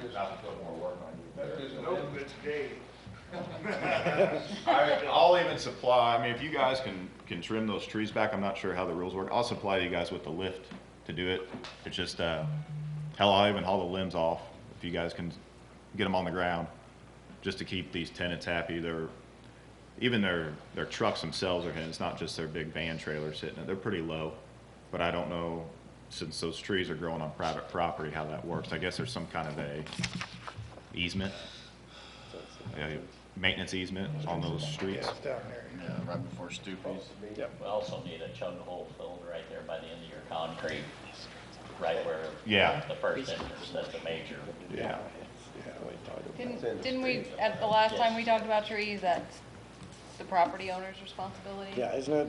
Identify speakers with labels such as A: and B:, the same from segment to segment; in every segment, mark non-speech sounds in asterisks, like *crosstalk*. A: there's not to put more work on you.
B: That
A: there.
B: doesn't open good today.
A: I, I'll even supply, I mean, if you guys can, can trim those trees back, I'm not sure how the rules work, I'll supply you guys with the lift to do it. It's just, uh, hell, I'll even haul the limbs off, if you guys can get them on the ground, just to keep these tenants happy, they're, even their, their trucks themselves are hitting, it's not just their big van trailers hitting it, they're pretty low. But I don't know, since those trees are growing on private property, how that works, I guess there's some kind of a easement, a maintenance easement on those streets.
B: It's down there.
C: Yeah, right before Stupi's.
D: We also need a chug hole filled right there by the end of your concrete, right where.
A: Yeah.
D: The first entrance, that's a major.
A: Yeah.
E: Didn't, didn't we, at the last time we talked about trees, that's the property owner's responsibility?
F: Yeah, isn't it?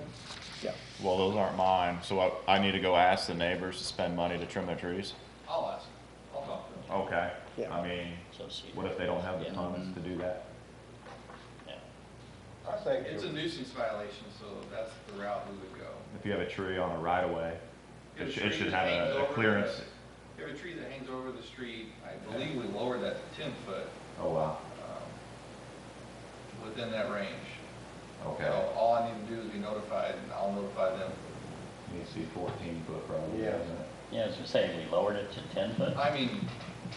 F: Yeah.
A: Well, those aren't mine, so I, I need to go ask the neighbors to spend money to trim their trees?
C: I'll ask, I'll talk to him.
A: Okay.
F: Yeah.
A: I mean,
D: So see-
A: what if they don't have the
D: Yeah.
A: funds to do that?
D: Yeah.
G: I think,
C: It's a
G: it-
C: nuisance violation, so that's the route we would go.
A: If you have a tree on a right of way,
C: If
A: it
C: a
A: should, it
C: tree
A: should
C: that
A: have a-
C: hangs over
A: a
C: the-
A: clearance.
C: If a tree that hangs over the street, I believe we lowered that to ten foot,
A: Oh, wow.
C: um, within that range.
A: Okay.
C: So all I need to do is be notified, and I'll notify them.
A: You see fourteen foot probably,
G: Yeah.
A: isn't it?
D: Yeah, as you say, we lowered it to ten foot.
C: I mean,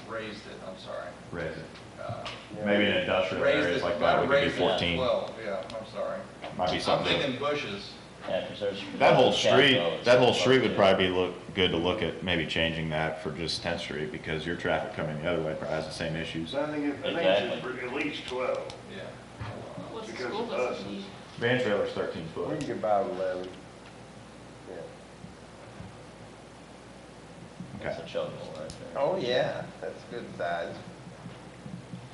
C: raised it, I'm sorry.
A: Raise it.
C: Uh,
G: yeah.
A: Maybe in industrial
C: Raised
A: areas
C: it,
A: like that, we could
C: might
A: do
C: raise it to
A: fourteen.
C: twelve, yeah, I'm sorry.
A: Might be
C: I'm
A: something.
C: thinking bushes.
D: Yeah, 'cause there's.
A: That whole
D: there's a
A: street,
D: capital, it's
A: that whole
D: supposed
A: street would
D: to-
A: probably be look, good to look at, maybe changing that for just Tenth Street, because your traffic coming the other way probably has the same issues.
G: So I think it, I think
D: Exactly.
G: it's at least twelve,
C: Yeah.
G: because of us,
A: Van trailer's thirteen
G: we
A: foot.
G: can get by with eleven. Yeah.
A: Okay,
D: It's a chug hole right there.
G: Oh, yeah, that's good size.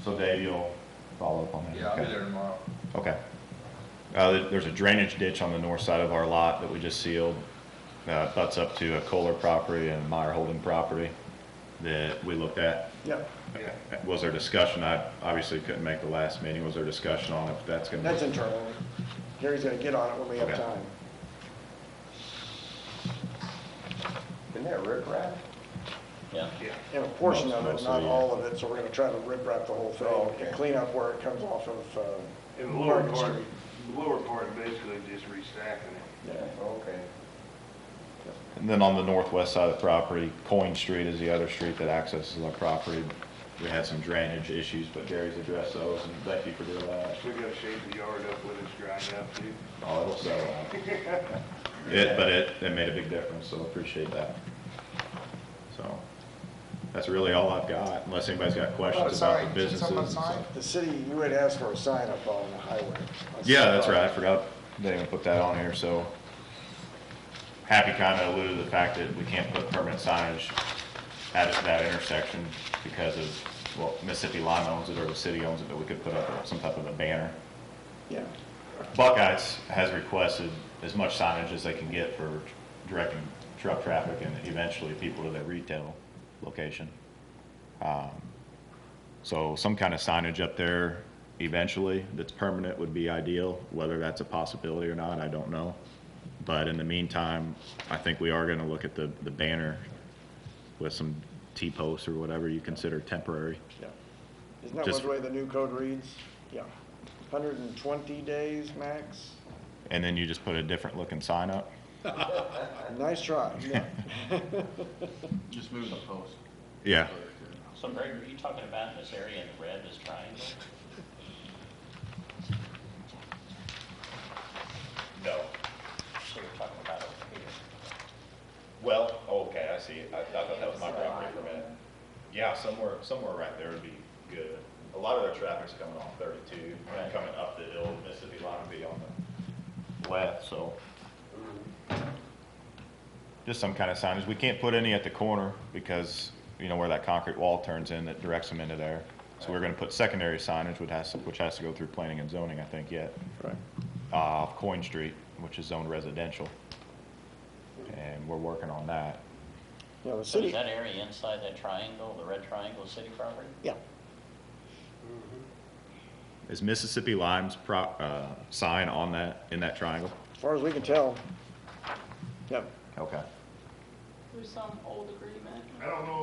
A: so Dave, you'll follow up on that?
C: Yeah, I'll be
A: Okay.
C: there tomorrow.
A: Okay. Uh, there- there's a drainage ditch on the north side of our lot that we just sealed. Uh, it butts up to a Kohler property and Meyer Holding property that we looked at.
F: Yeah,
C: Yeah.
A: Was there discussion? I obviously couldn't make the last meeting. Was there discussion on if that's gonna? be-
F: that's internal. Gary's gonna get on it when we have
A: Okay.
F: time.
G: Isn't that rip rap?
D: Yeah.
F: And a portion of it,
A: Mostly,
F: not
A: yeah.
F: all of it, so we're gonna try to rip wrap the whole
G: Oh,
F: thing and clean up where it comes off of, uh,
G: And the lower
F: Market
G: part,
F: Street.
G: the lower part basically just restacking it.
F: Yeah.
G: Okay.
A: And then on the northwest side of the property, Coin Street is the other street that accesses our property. We had some drainage issues, but Gary's addressed those, and thank you for doing that.
G: We gotta shape the yard up when it's dried up too.
A: Oh, it'll settle out. It, but it, it made a big difference, so appreciate that. So, that's really all I've got, unless anybody's got
C: Oh,
A: questions Oh, about the businesses. and stuff.
F: The city, you had asked for a sign up on the highway.
A: Yeah, that's right, I forgot, they didn't even put that on here, so. Happy kinda alluded to the fact that we can't put permanent signage at that intersection because of, well, Mississippi Lime owns it, or the city owns it, but we could put up some type of a banner.
F: Yeah,
A: Buckeyes has requested as much signage as they can get for directing truck traffic and eventually people to their retail location. Um, So some kind of signage up there eventually that's permanent would be ideal. Whether that's a possibility or not, I don't know. But in the meantime, I think we are gonna look at the, the banner with some T-posts or whatever you consider temporary.
F: yeah. Isn't that
A: Just-
F: one way the new code reads? Yeah. Hundred and twenty days max?
A: And then you just put a different looking sign up.
F: Nice *laughs* try, yeah.
C: Just move the post.
A: Yeah.
D: So Greg, were you talking about this area in red, this triangle?
A: No.
D: So you're talking about over here.
A: Well, oh, okay, I see. I, I thought that was my property for a minute. Yeah, somewhere, somewhere right there would be good. A lot of their traffic's coming off thirty-two,
D: Right.
A: and coming up the hill, Mississippi line would be on the left, so. Just some kind of signage. We can't put any at the corner because, you know, where that concrete wall turns in, that directs them into there. So we're gonna put secondary signage, which has, which has to go through planning and zoning, I think, yet
F: Right.
A: uh, off Coin Street, which is zoned residential. And we're working on that.
F: Yeah, the
D: So is
F: city,
D: that area inside that triangle, the red triangle, city property?
F: yeah.
A: Is Mississippi Lime's pro, uh, sign on that, in that triangle?
F: As far as we can tell. Yep.
A: Okay.
H: There's some old agreement.
G: I don't know